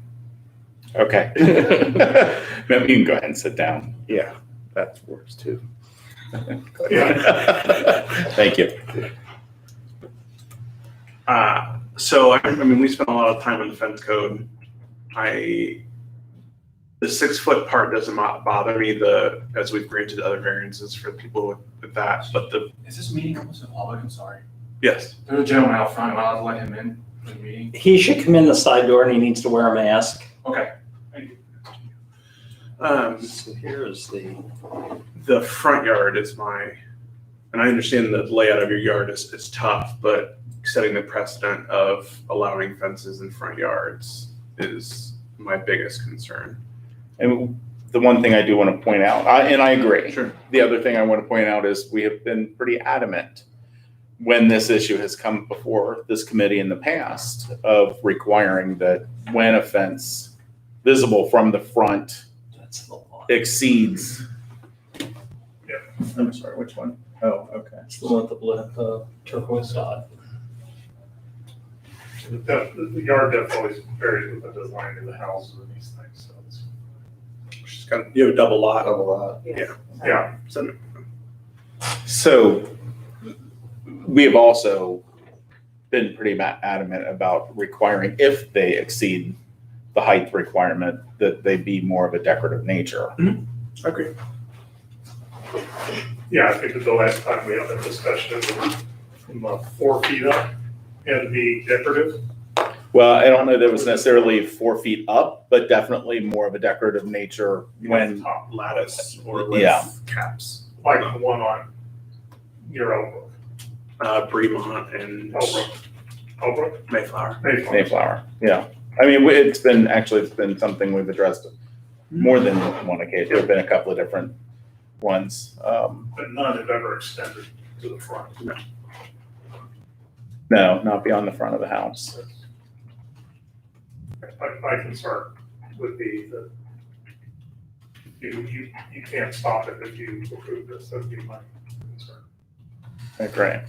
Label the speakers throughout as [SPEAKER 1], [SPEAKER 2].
[SPEAKER 1] Okay. Maybe you can go ahead and sit down.
[SPEAKER 2] Yeah, that works too.
[SPEAKER 1] Thank you.
[SPEAKER 3] Uh, so I, I mean, we spent a lot of time in defense code. I the six foot part doesn't mo- bother me. The as we've granted other variances for people with, with that, but the
[SPEAKER 4] Is this meeting open to the public? I'm sorry.
[SPEAKER 3] yes,
[SPEAKER 4] There's a gentleman out front. Am I allowed to let him in for the meeting?
[SPEAKER 5] He should come in the side door and he needs to wear a mask.
[SPEAKER 4] Okay.
[SPEAKER 3] um,
[SPEAKER 5] So here is the,
[SPEAKER 3] the front yard is my, and I understand the layout of your yard is is tough, but setting the precedent of allowing fences in front yards is my biggest concern.
[SPEAKER 1] And the one thing I do want to point out, I, and I agree.
[SPEAKER 3] Sure.
[SPEAKER 1] The other thing I want to point out is we have been pretty adamant when this issue has come before this committee in the past of requiring that when a fence visible from the front
[SPEAKER 5] that's the one.
[SPEAKER 1] exceeds. I'm sorry, which one? Oh, okay.
[SPEAKER 5] That's the one with the blue, the turquoise dot.
[SPEAKER 6] The depth, the yard depth always varies with the design of the houses and these things, so it's,
[SPEAKER 3] She's got you have a double lot.
[SPEAKER 6] yeah.
[SPEAKER 3] So
[SPEAKER 1] So we have also been pretty ma- adamant about requiring, if they exceed the height requirement, that they be more of a decorative nature.
[SPEAKER 3] agree.
[SPEAKER 6] Yeah, I think that the last time we had that discussion, it was from uh, four feet up, had to be decorative.
[SPEAKER 1] Well, I don't know that it was necessarily four feet up, but definitely more of a decorative nature when,
[SPEAKER 6] Top
[SPEAKER 3] lattice or
[SPEAKER 1] Yeah.
[SPEAKER 3] with caps.
[SPEAKER 6] Like the one on near Elbrook,
[SPEAKER 3] Uh, Bremont and
[SPEAKER 6] Elbrook, Elbrook,
[SPEAKER 3] Mayflower.
[SPEAKER 6] Mayflower.
[SPEAKER 1] Mayflower, yeah. I mean, we- it's been, actually, it's been something we've addressed more than one occasion. There've been a couple of different ones. Um,
[SPEAKER 6] But none have ever extended to the front.
[SPEAKER 1] No, not beyond the front of the house.
[SPEAKER 6] My, my concern would be that you, you, you can't stop it if you approve this, that'd be my concern.
[SPEAKER 1] Great.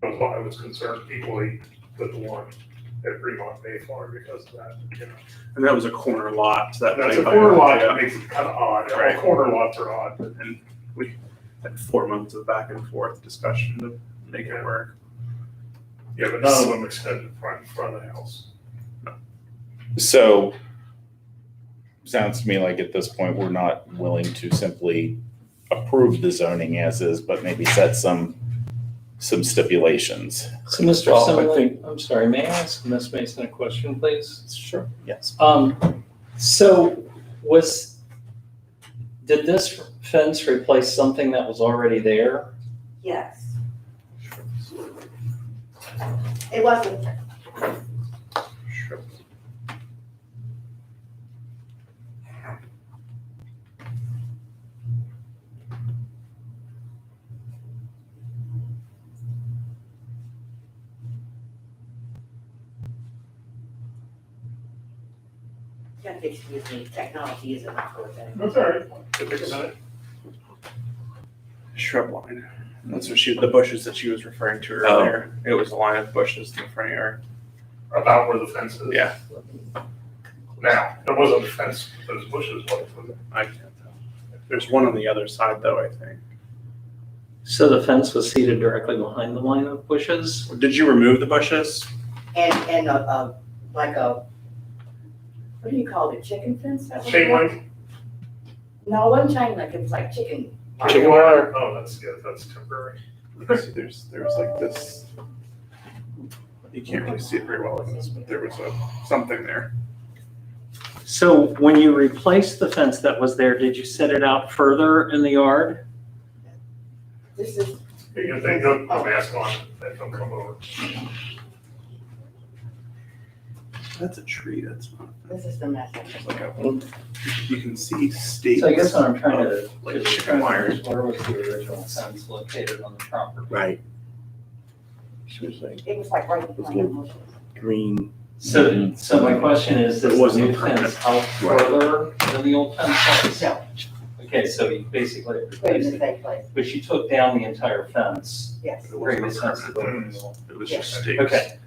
[SPEAKER 6] That's why I was concerned equally with the one at Fremont Mayflower because of that, you know.
[SPEAKER 3] And that was a corner lot. So that
[SPEAKER 6] That's a
[SPEAKER 3] thing by-
[SPEAKER 6] corner lot, that
[SPEAKER 3] yeah.
[SPEAKER 6] makes it kind of odd,
[SPEAKER 3] Right.
[SPEAKER 6] all corner lots are odd, but
[SPEAKER 3] And we had four months of back and forth discussion to make it work.
[SPEAKER 6] yeah, but none of them extended front, front of the house.
[SPEAKER 1] So, sounds to me like at this point, we're not willing to simply approve the zoning as is, but maybe set some, some stipulations.
[SPEAKER 5] So Mr.
[SPEAKER 4] Well, I
[SPEAKER 5] Simlin,
[SPEAKER 4] think-
[SPEAKER 5] I'm sorry, may I ask Ms. Mason a question, please?
[SPEAKER 1] Sure. Yes.
[SPEAKER 5] Um, so was, did this fence replace something that was already there?
[SPEAKER 7] Yes. It wasn't, you have to excuse me, technology isn't my forte.
[SPEAKER 6] That's all right. Take a minute.
[SPEAKER 3] Shrub line. That's what she, the bushes that she was referring to earlier. It was a line of bushes in the front yard.
[SPEAKER 6] About where the fence is.
[SPEAKER 3] Yeah.
[SPEAKER 6] Now, there wasn't a fence, those bushes, what, was it?
[SPEAKER 3] I can't tell. There's one on the other side though, I think.
[SPEAKER 5] So the fence was seated directly behind the line of bushes?
[SPEAKER 3] Did you remove the bushes?
[SPEAKER 7] And, and a, a, like a, what do you call it, chicken fence? That was
[SPEAKER 6] chain
[SPEAKER 7] it?
[SPEAKER 6] link?
[SPEAKER 7] No, one chain link, it's like chicken.
[SPEAKER 3] Chicken
[SPEAKER 6] wire? Oh, that's, yeah, that's temporary.
[SPEAKER 3] See, There's, there was like this. You can't really see it very well in this, but there was a, something there.
[SPEAKER 5] So when you replaced the fence that was there, did you set it out further in the yard?
[SPEAKER 7] This is,
[SPEAKER 6] You can think of a mask on, then they'll come over.
[SPEAKER 3] That's a tree, that's not.
[SPEAKER 7] this is the message.
[SPEAKER 3] It's like a, you can see stakes.
[SPEAKER 5] So I guess what I'm trying to.
[SPEAKER 3] Like chicken wires.
[SPEAKER 5] Where was the original fence located on the property?
[SPEAKER 2] Right. She was like
[SPEAKER 7] It was like right behind the bushes.
[SPEAKER 2] green.
[SPEAKER 5] So, so my question is,
[SPEAKER 3] It
[SPEAKER 5] is the
[SPEAKER 3] wasn't
[SPEAKER 5] new fence out
[SPEAKER 2] Right.
[SPEAKER 5] further than the old fence was?
[SPEAKER 7] No.
[SPEAKER 5] Okay, so you basically
[SPEAKER 7] Wait,
[SPEAKER 5] replaced
[SPEAKER 7] it's
[SPEAKER 5] it,
[SPEAKER 7] that place,
[SPEAKER 5] but you took down the entire fence.
[SPEAKER 7] yes.
[SPEAKER 3] It wasn't
[SPEAKER 5] Previous fence to the
[SPEAKER 3] permanent.
[SPEAKER 5] original.
[SPEAKER 3] It was just
[SPEAKER 6] Yeah.
[SPEAKER 3] stakes.
[SPEAKER 5] Okay,